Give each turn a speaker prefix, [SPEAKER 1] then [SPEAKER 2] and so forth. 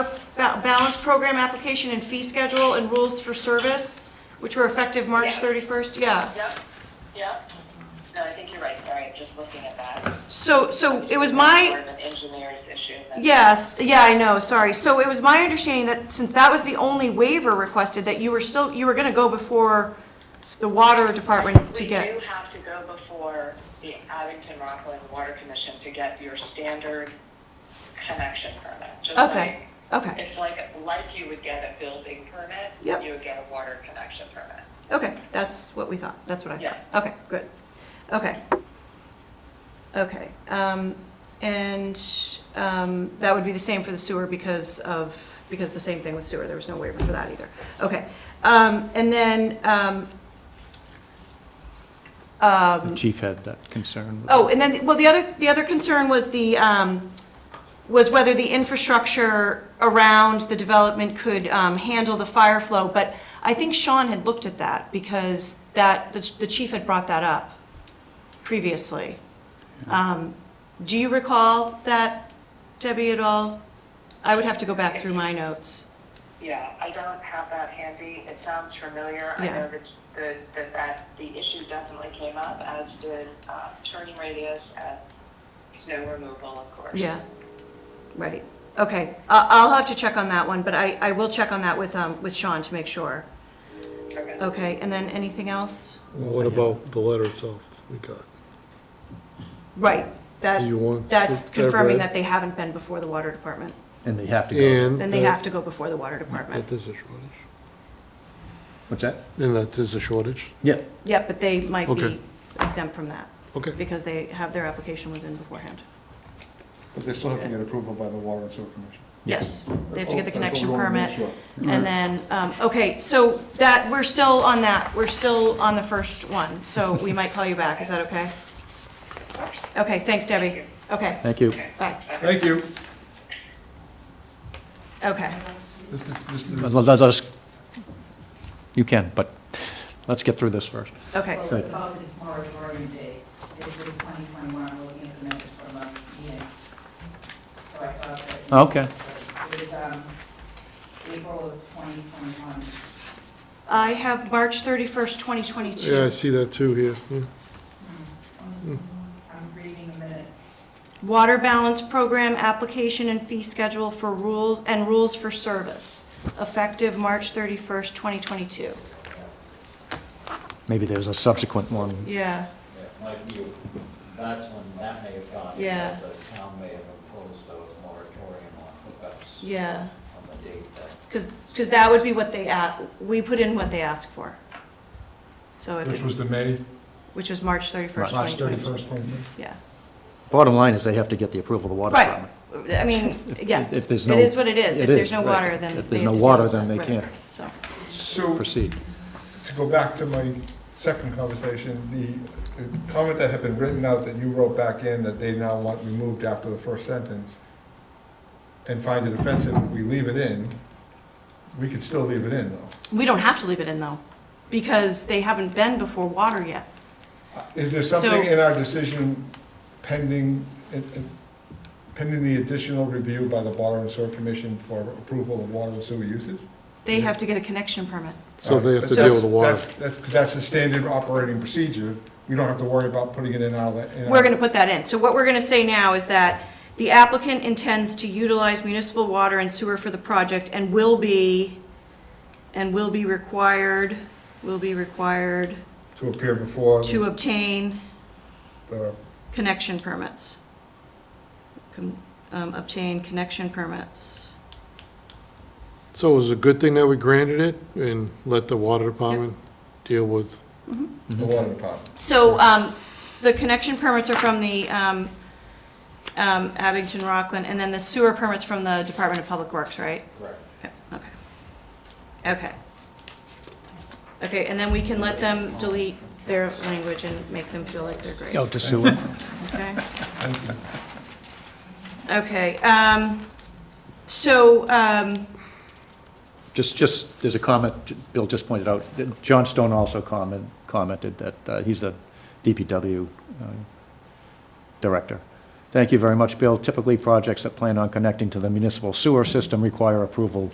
[SPEAKER 1] ba- balance program application and fee schedule and rules for service, which were effective March
[SPEAKER 2] Yes.
[SPEAKER 1] 31st, yeah.
[SPEAKER 2] Yep, yep. No, I think you're right, sorry, I'm just looking at that.
[SPEAKER 1] So, so it was my,
[SPEAKER 2] More of an engineer's issue than.
[SPEAKER 1] Yes, yeah, I know, sorry. So it was my understanding that since that was the only waiver requested, that you were still, you were gonna go before the water department to
[SPEAKER 2] We do
[SPEAKER 1] get.
[SPEAKER 2] have to go before the Abington Rockland Water Commission to get your standard connection permit. just
[SPEAKER 1] Okay,
[SPEAKER 2] like-
[SPEAKER 1] okay,
[SPEAKER 2] It's like, like you would get a building permit.
[SPEAKER 1] Yep.
[SPEAKER 2] You would get a water connection permit.
[SPEAKER 1] okay, that's what we thought, that's what I
[SPEAKER 2] Yeah.
[SPEAKER 1] thought. Okay, good, okay. Okay, um, and, um, that would be the same for the sewer because of, because the same thing with sewer, there was no waiver for that either. Okay, um, and then, um, um,
[SPEAKER 3] The chief had that concern.
[SPEAKER 1] Oh, and then, well, the other, the other concern was the, um, was whether the infrastructure around the development could um, handle the fire flow, but I think Sean had looked at that, because that, the the chief had brought that up previously. Um, Do you recall that, Debbie, at all? I would have to go back through my notes.
[SPEAKER 2] Yeah, I don't have that handy. It sounds familiar. I
[SPEAKER 1] Yeah.
[SPEAKER 2] know that, the- that, that the issue definitely came up, as did uh, turning radius and snow removal, of course.
[SPEAKER 1] Yeah, right, okay. I- I'll have to check on that one, but I, I will check on that with, um, with Sean to make sure.
[SPEAKER 2] Okay.
[SPEAKER 1] Okay, and then anything else?
[SPEAKER 4] Well, What about the letter itself we got?
[SPEAKER 1] Right,
[SPEAKER 4] Do you
[SPEAKER 1] that,
[SPEAKER 4] want
[SPEAKER 1] that's
[SPEAKER 4] that read?
[SPEAKER 1] confirming that they haven't been before the water department.
[SPEAKER 3] And they have to go.
[SPEAKER 4] And.
[SPEAKER 1] Then they have to go before the water
[SPEAKER 4] That
[SPEAKER 1] department.
[SPEAKER 4] there's a shortage.
[SPEAKER 3] What's that?
[SPEAKER 4] And that there's a shortage?
[SPEAKER 3] Yeah.
[SPEAKER 1] Yep, but they might be
[SPEAKER 4] Okay.
[SPEAKER 1] exempt from that,
[SPEAKER 4] Okay.
[SPEAKER 1] because they have, their application was in beforehand.
[SPEAKER 5] But they still have to get approval by the Water and Sewer Commission.
[SPEAKER 1] Yes, they have to get the
[SPEAKER 5] That's all- that's
[SPEAKER 1] connection
[SPEAKER 5] all we wanna make
[SPEAKER 1] permit,
[SPEAKER 5] sure.
[SPEAKER 1] and then, um, okay, so that, we're still on that, we're still on the first one, so we might call you back, is that okay? Okay, thanks, Debbie. Okay,
[SPEAKER 3] Thank you.
[SPEAKER 1] bye,
[SPEAKER 5] Thank you.
[SPEAKER 1] okay.
[SPEAKER 5] Mr. Mr.
[SPEAKER 3] Let let us, you can, but let's get through this first.
[SPEAKER 1] Okay,
[SPEAKER 6] Well, it's about the moratorium date, it was 2021, I'm looking at the minutes from our meeting. So I thought that.
[SPEAKER 3] Okay.
[SPEAKER 6] It was um, April of 2021.
[SPEAKER 1] I have March 31st, 2022.
[SPEAKER 4] Yeah, I see that too here. Yeah.
[SPEAKER 6] I'm reading the minutes.
[SPEAKER 1] Water balance program application and fee schedule for rules, and rules for service, effective March 31st, 2022.
[SPEAKER 3] Maybe there's a subsequent one.
[SPEAKER 1] Yeah,
[SPEAKER 7] Yeah, Like you, that's when that may have gone.
[SPEAKER 1] Yeah.
[SPEAKER 7] The town may have imposed a moratorium on hookups.
[SPEAKER 1] yeah,
[SPEAKER 7] On the date that.
[SPEAKER 1] because, because that would be what they, a- we put in what they asked for. So if
[SPEAKER 5] Which was the
[SPEAKER 1] it's,
[SPEAKER 5] May,
[SPEAKER 1] which was March 31st,
[SPEAKER 5] March
[SPEAKER 1] 2022.
[SPEAKER 5] 31st, one.
[SPEAKER 1] Yeah,
[SPEAKER 3] Bottom line is they have to get the approval of the water
[SPEAKER 1] right,
[SPEAKER 3] department.
[SPEAKER 1] I mean, yeah,
[SPEAKER 3] If there's
[SPEAKER 1] it
[SPEAKER 3] no-
[SPEAKER 1] is what it is. If
[SPEAKER 3] it
[SPEAKER 1] there's
[SPEAKER 3] is,
[SPEAKER 1] no
[SPEAKER 3] right.
[SPEAKER 1] water, then.
[SPEAKER 3] If
[SPEAKER 1] they
[SPEAKER 3] there's
[SPEAKER 1] have
[SPEAKER 3] no
[SPEAKER 1] to deal
[SPEAKER 3] water,
[SPEAKER 1] with
[SPEAKER 3] then
[SPEAKER 1] that,
[SPEAKER 3] they
[SPEAKER 1] right.
[SPEAKER 3] can't
[SPEAKER 1] So,
[SPEAKER 5] So,
[SPEAKER 3] proceed.
[SPEAKER 5] to go back to my second conversation, the the comment that had been written out that you wrote back in that they now want removed after the first sentence and find it offensive if we leave it in, we could still leave it in though.
[SPEAKER 1] we don't have to leave it in though, because they haven't been before water yet.
[SPEAKER 5] Is there
[SPEAKER 1] So-
[SPEAKER 5] something in our decision pending, pending the additional review by the Water and Sewer Commission for approval of water and sewer uses?
[SPEAKER 1] They have to get a connection permit.
[SPEAKER 4] So they have to deal with the water.
[SPEAKER 5] That's, that's, 'cause that's the standard operating procedure. We don't have to worry about putting it in our. in our-
[SPEAKER 1] We're gonna put that in. So what we're gonna say now is that the applicant intends to utilize municipal water and sewer for the project and will be, and will be required, will be required
[SPEAKER 5] To appear before
[SPEAKER 1] to obtain
[SPEAKER 5] the
[SPEAKER 1] connection permits. Con- um, Obtain connection permits.
[SPEAKER 4] So it was a good thing that we granted it and let the water department deal with,
[SPEAKER 5] the water department.
[SPEAKER 1] So um, the connection permits are from the um, um, Abington Rockland, and then the sewer permits from the Department of Public Works, right?
[SPEAKER 7] Correct.
[SPEAKER 1] Yep, Okay. Okay. Okay, and then we can let them delete their language and make them feel like they're great,
[SPEAKER 3] Go to sewer.
[SPEAKER 1] okay? Okay, um, so, um,
[SPEAKER 3] Just, just, there's a comment, Bill just pointed out, that John Stone also comment, commented that uh, he's the DPW uh, director. Thank you very much, Bill. Typically, projects that plan on connecting to the municipal sewer system require approval